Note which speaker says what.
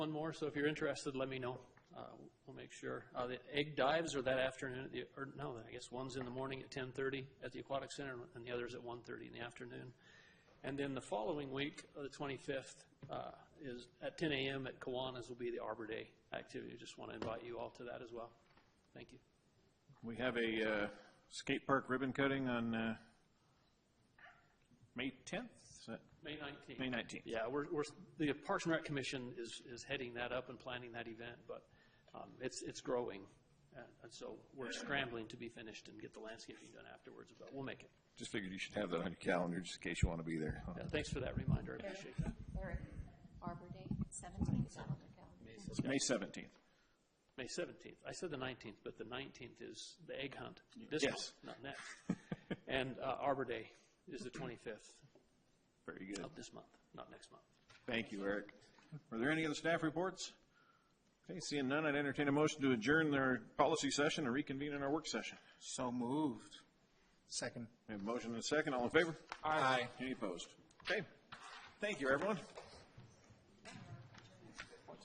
Speaker 1: One more, so if you're interested, let me know. Uh, We'll make sure. Uh, The egg dives are that afternoon, at the- or no, I guess one's in the morning at 10:30 at the Aquatic Center, and the other's at 1:30 in the afternoon. And then the following week, uh, the 25th, uh, is at 10 a.m. at Kiwanis will be the Arbor Day activity. Just want to invite you all to that as well. Thank you.
Speaker 2: We have a uh, skate park ribbon cutting on uh, May 10th, is that,
Speaker 1: May 19th.
Speaker 2: May 19th?
Speaker 1: Yeah, we're, we're, the Parks and Rec Commission is, is heading that up and planning that event, but um, it's, it's growing. And and so we're scrambling to be finished and get the landscaping done afterwards, but we'll make it.
Speaker 3: Just figured you should have that on your calendar just in case you want to be there.
Speaker 1: Yeah, Thanks for that reminder, I appreciate that.
Speaker 4: Eric, Arbor Day, seventeen, is that on the calendar?
Speaker 2: It's May 17th.
Speaker 1: May 17th. I said the 19th, but the 19th is the egg hunt. This
Speaker 2: Yes.
Speaker 1: month, Not next. And uh, Arbor Day is the 25th
Speaker 2: Very good.
Speaker 1: of this month, not next month.
Speaker 2: Thank you, Eric. Are there any other staff reports? Okay, seeing none, I'd entertain a motion to adjourn our policy session and reconvene in our work session.
Speaker 5: So moved. Second.
Speaker 2: We have a motion and a second. All in favor?
Speaker 5: Aye.
Speaker 2: Any opposed? Okay. Thank you, everyone.